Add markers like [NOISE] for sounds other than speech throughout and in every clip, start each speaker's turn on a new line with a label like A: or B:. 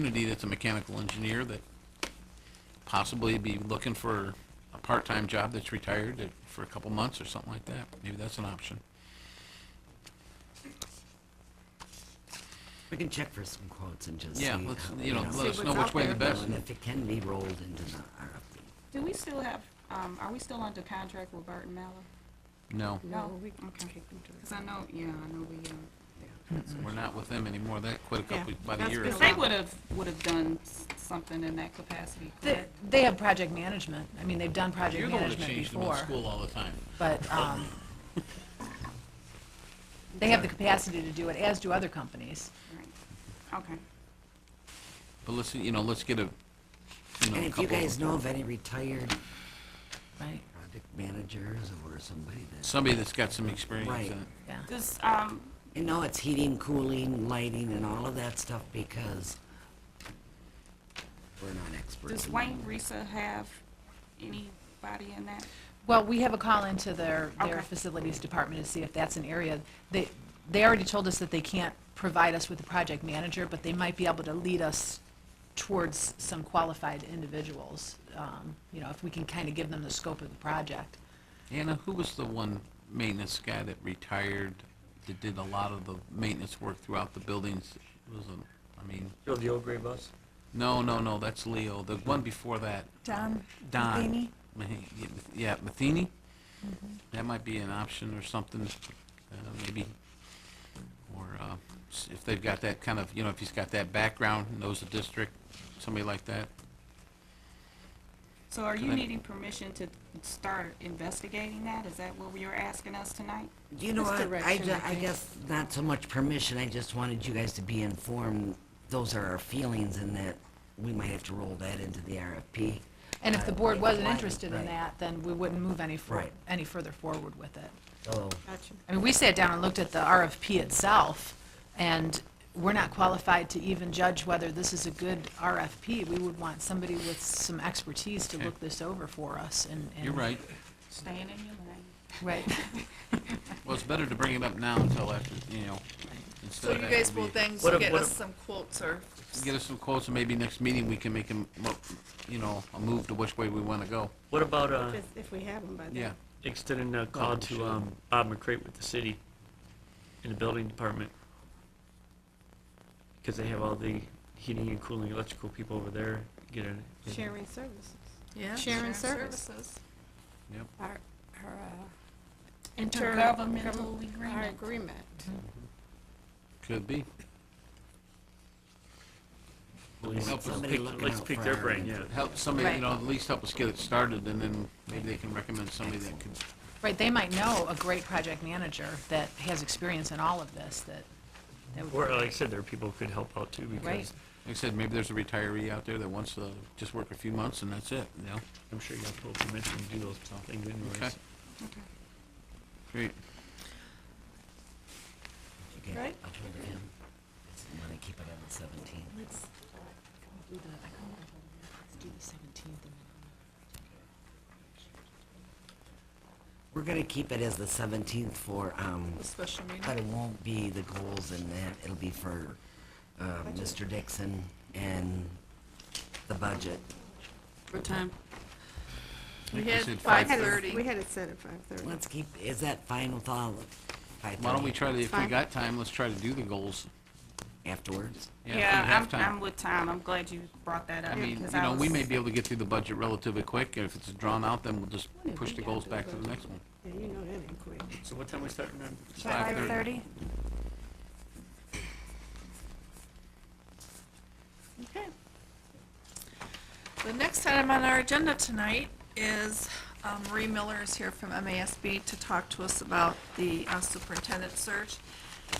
A: community that's a mechanical engineer that possibly be looking for a part-time job that's retired that- for a couple months or something like that. Maybe that's an option.
B: We can check for some quotes and just see.
A: Yeah, let's,
B: how
A: you know,
B: they go.
A: let us
C: what's
A: know which
C: out
A: way the
C: there.
A: best.
B: And if it can be rolled into the RFP.
C: Do we still have, um, are we still under contract with Burton Mallow?
A: No,
C: No, we, okay. Cause I know, yeah, I know we, uh.
A: we're not with them anymore. That quit a couple, by the
D: that's
A: year.
D: been
A: ago.
C: Cause they would've, would've done s- something in that capacity,
D: They,
C: correct?
D: they have project management. I mean, they've done project
A: You're the one that
D: management
A: changed them in
D: before,
A: school all the time.
D: but, um, [LAUGHS] they have the capacity to do it, as do other companies.
C: Right. Okay,
A: But let's, you know, let's get a, you know,
B: And
A: a
B: if you
A: couple of-
B: guys know of any retired
D: Right.
B: project managers or somebody that,
A: somebody that's got some experience
B: Right.
A: in it.
D: Yeah.
C: does, um,
B: you know, it's heating, cooling, lighting and all of that stuff because we're not experts.
C: does
B: in
C: Wayne Risa have anybody in that?
D: Well, we have a call into their, their
C: Okay.
D: facilities department to see if that's an area. They, they already told us that they can't provide us with a project manager, but they might be able to lead us towards some qualified individuals, um, you know, if we can kind of give them the scope of the project.
A: Anna, who was the one maintenance guy that retired, that did a lot of the maintenance work throughout the buildings? It was, a- I mean,
E: Still the old gray bus?
A: no, no, no, that's Leo. The one before that,
F: Don
A: Don.
F: Matheny? Mm-hmm.
A: Mahe- yeah, Math- Yeah, Matheny? That might be an option or something, uh, maybe. Or uh, s- if they've got that kind of, you know, if he's got that background, knows the district, somebody like that.
C: So are you
A: Can I-
C: needing permission to start investigating that? Is that what you're asking us tonight?
B: You know
F: It's
B: what, I,
F: direction,
B: ju-
F: I
B: I
F: think.
B: guess not so much permission, I just wanted you guys to be informed, those are our feelings and that we might have to roll that into the RFP.
D: And if the
B: Uh,
D: board wasn't
B: right,
D: interested in
B: right.
D: that, then we wouldn't move any, for-
B: Right.
D: any further forward with it.
B: So,
F: Gotcha.
D: I mean, we sat down and looked at the RFP itself, and we're not qualified to even judge whether this is a good RFP. We would want somebody with some expertise to look this over for us and. and-
A: You're right.
C: Staying in your lane.
D: Right.
A: Well, it's better to bring it up now until after, you know, instead
F: So
A: of.
F: you
A: after
F: guys
A: the
F: will
A: meeting.
F: then
E: What if-
F: get
E: what
F: us
E: if-
F: some quotes or,
A: Get us some quotes, and maybe next meeting we can make a, m- mo- you know, a move to which way we want to go.
E: What about, uh,
F: if we have them by then.
A: Yeah.
E: extending a call to, um, Bob McCrate with the city in the building department? Because they have all the heating and cooling, electrical people over there, get a.
G: Sharing services.
F: Yeah.
G: Sharing services.
A: Yep.
G: Our, our, uh,
C: Intergovernmental
G: our
C: agreement.
G: agreement.
A: Could be.
E: At least
A: Help us
B: somebody
A: pick-
B: looking
E: Let's
B: out
E: pick
B: for
E: their
B: our-
E: brain, yeah.
A: Help somebody, you
D: Right.
A: know, at least help us get it started, and then maybe they can recommend somebody that could,
D: Right, they might know a great project manager that has experience in all of this, that, that would.
E: Or, like I said, there are people who could help out too, because
D: Right.
A: like I said, maybe there's a retiree out there that wants to just work a few months and that's it, you know?
E: I'm sure you have full permission to do those things
A: Okay.
E: anyways.
C: Okay.
A: Great.
B: okay,
G: Right.
B: I'll put it in. It's- I'm gonna keep it on the seventeen.
D: Let's uh, do the, I do the seventeenth
B: We're gonna keep it as the seventeenth for, um,
F: A special
B: but it
F: meeting.
B: won't be the goals and that, it'll be for, uh, Mr. Dixon and the budget.
C: What time?
F: We
A: Like I
F: had
A: said,
F: five
G: Had it-
F: thirty.
G: We had it set at five thirty.
B: Let's keep, is that fine with all, five
A: Why don't we
B: thirty
A: try to, if we
G: Fine.
A: got time, let's try to do the goals.
B: afterwards?
A: if we
C: Yeah,
A: have
C: I'm, I'm
A: time.
C: with Tom. I'm glad you brought that up.
A: I mean,
C: because
A: you know, we
C: was-
A: may be able to get through the budget relatively quick, and if it's drawn out, then we'll just push the goals back to the next one.
G: Yeah, you know that ain't quick.
E: So what time we starting on?
A: Five thirty.
F: Okay. The next item on our agenda tonight is um, Marie Miller is here from MASB to talk to us about the uh, superintendent search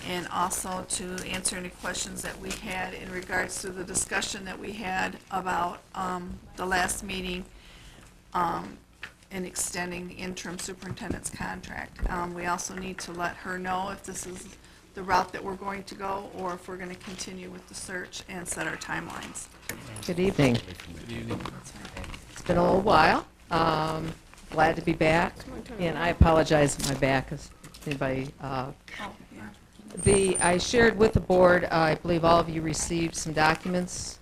F: and also to answer any questions that we had in regards to the discussion that we had about um, the last meeting um, in extending the interim superintendent's contract. Um, We also need to let her know if this is the route that we're going to go, or if we're going to continue with the search and set our timelines.
H: Good evening.
A: Good evening.
H: It's been a little while. Um, Glad to be back, and I apologize if my back is, anybody. uh, The, I shared with the board, I believe all of you received some documents